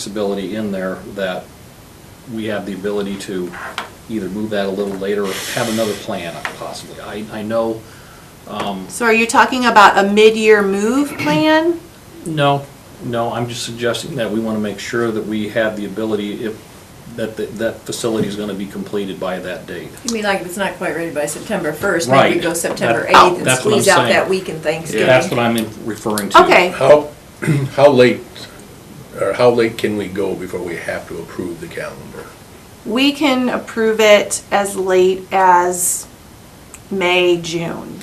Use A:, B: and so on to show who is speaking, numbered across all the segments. A: flexibility in there that we have the ability to either move that a little later or have another plan possibly. I, I know,
B: So are you talking about a mid-year move plan?
A: no, no, I'm just suggesting that we want to make sure that we have the ability if, that, that- that facility is going to be completed by that date.
C: You mean like if it's not quite ready by September first,
A: Right.
C: maybe we go September
A: That-
C: eighth and
A: that's what I'm
C: squeeze out
A: saying.
C: that week in Thanksgiving?
A: That's what I'm in- referring to.
B: Okay,
D: How, how late, or how late can we go before we have to approve the calendar?
B: we can approve it as late as May, June.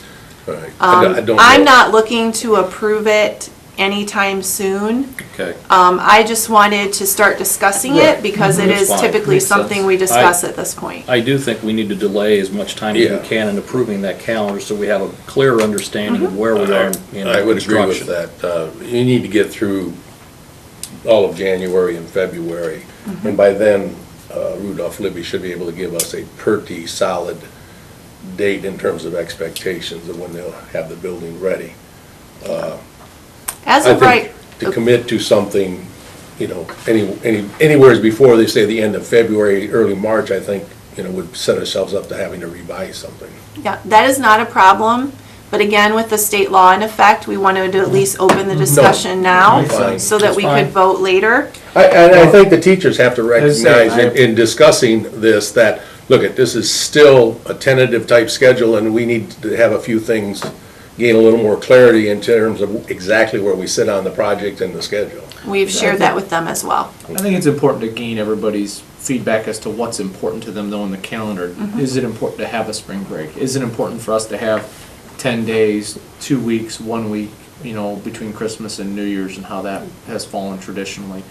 D: All right, I don't- I
B: Um,
D: don't
B: I'm
D: know.
B: not looking to approve it anytime soon.
A: Okay.
B: Um, I just wanted to start discussing it
D: Right.
B: because it
A: That's
B: is
A: fine.
B: typically
A: Makes sense.
B: something we discuss at this point.
A: I do think we need to delay as much time as
D: Yeah.
A: we can in approving that calendar so we have a clear understanding of where we are in
D: I would agree with
A: construction.
D: that. Uh, You need to get through all of January and February,
B: Mm-hmm.
D: and by then uh, Rudolph Libby should be able to give us a pretty solid date in terms of expectations of when they'll have the building ready.
B: As
D: I
B: of
D: think
B: right,
D: to commit to something, you know, any, any, anywheres before they say the end of February, early March, I think, you know, would set ourselves up to having to revise something.
B: yeah, that is not a problem. But again, with the state law in effect, we wanted to at least open the discussion now
D: Makes sense.
B: so that we
A: That's fine.
B: could vote later.
D: I, and I think the teachers have to
E: That's it,
D: recognize
E: I-
D: in, in discussing this, that, look, it, this is still a tentative type schedule, and we need to have a few things, gain a little more clarity in terms of exactly where we sit on the project and the schedule.
B: We've shared that with them as well.
E: I think it's important to gain everybody's feedback as to what's important to them though in the calendar. Is it important to have a spring break? Is it important for us to have ten days, two weeks, one week, you know, between Christmas and New Year's and how that has fallen traditionally?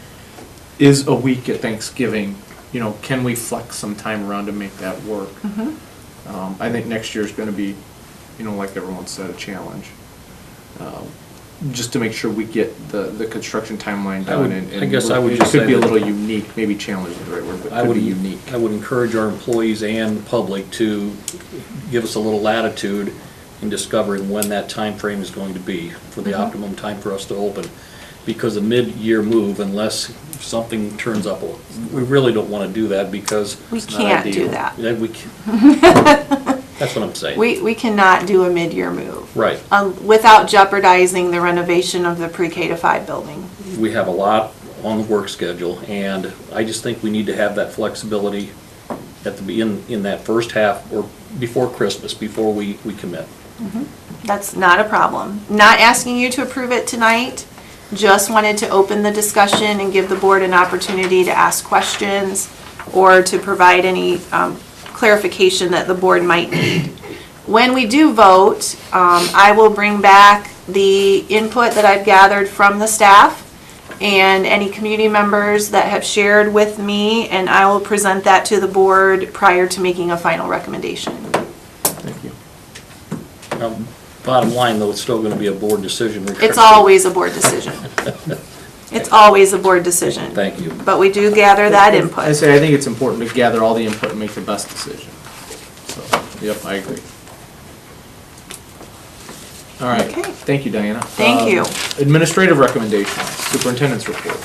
E: Is a week at Thanksgiving, you know, can we flex some time around to make that work? Um, I think next year's gonna be, you know, like everyone said, a challenge. Um, Just to make sure we get the, the construction timeline
A: I would-
E: down and.
A: I
E: and
A: guess I would
E: it
A: just
E: Could
A: say
E: be a
A: that-
E: little unique, maybe challenge is the right word, but
A: I
E: could
A: would,
E: be unique.
A: I would encourage our employees and public to give us a little latitude in discovering when that time frame is going to be for the
B: Mm-hmm.
A: optimum time for us to open. Because a mid-year move, unless something turns up, we really don't want to do that because
B: We
E: not
B: can't do
E: ideal.
B: that.
A: then we, can- that's what I'm saying.
B: We, we cannot do a mid-year move
A: Right.
B: um, without jeopardizing the renovation of the pre-K to five building.
A: we have a lot on the work schedule, and I just think we need to have that flexibility at the, be- in, in that first half or before Christmas, before we, we commit.
B: That's not a problem. Not asking you to approve it tonight, just wanted to open the discussion and give the board an opportunity to ask questions or to provide any um, clarification that the board might need. When we do vote, um, I will bring back the input that I've gathered from the staff and any community members that have shared with me, and I will present that to the board prior to making a final recommendation.
E: Thank you.
A: Now, Bottom line, though, it's still gonna be a board decision.
B: It's always a board decision. It's always a board decision.
A: Thank you.
B: But we do gather that
E: I
B: input.
E: say, I think it's important to gather all the input and make the best decision. So, yep, I agree. All right,
B: Okay.
E: thank you, Diana.
B: Thank
E: Um,
B: you.
E: Administrative recommendations, superintendent's report.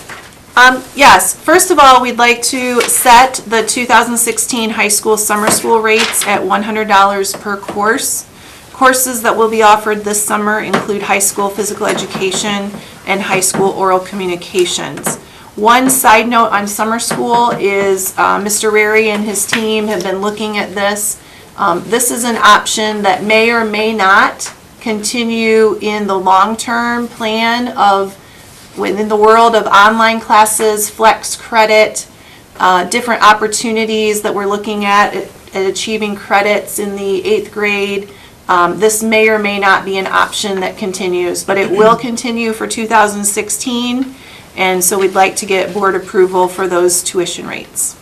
B: Um, yes, first of all, we'd like to set the 2016 high school summer school rates at $100 per course. Courses that will be offered this summer include high school physical education and high school oral communications. One side note on summer school is uh, Mr. Rary and his team have been looking at this. Um, This is an option that may or may not continue in the long-term plan of, within the world of online classes, flex credit, uh, different opportunities that we're looking at, at achieving credits in the eighth grade. Um, This may or may not be an option that continues, but it will continue for 2016. And so we'd like to get board approval for those tuition rates.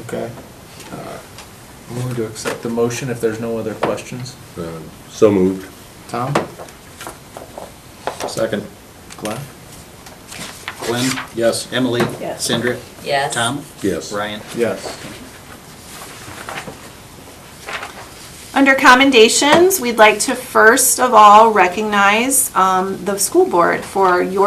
E: Okay. Uh, I'm going to accept the motion if there's no other questions.
D: Uh, So moved.
E: Tom?
A: Second,
E: Glenn?
F: Glenn,
A: yes.
F: Emily,
C: Yes.
F: Sandra,
C: Yes.
F: Tom,
D: Yes.
F: Ryan.
E: Yes.
B: Under commendations, we'd like to first of all recognize um, the school board for your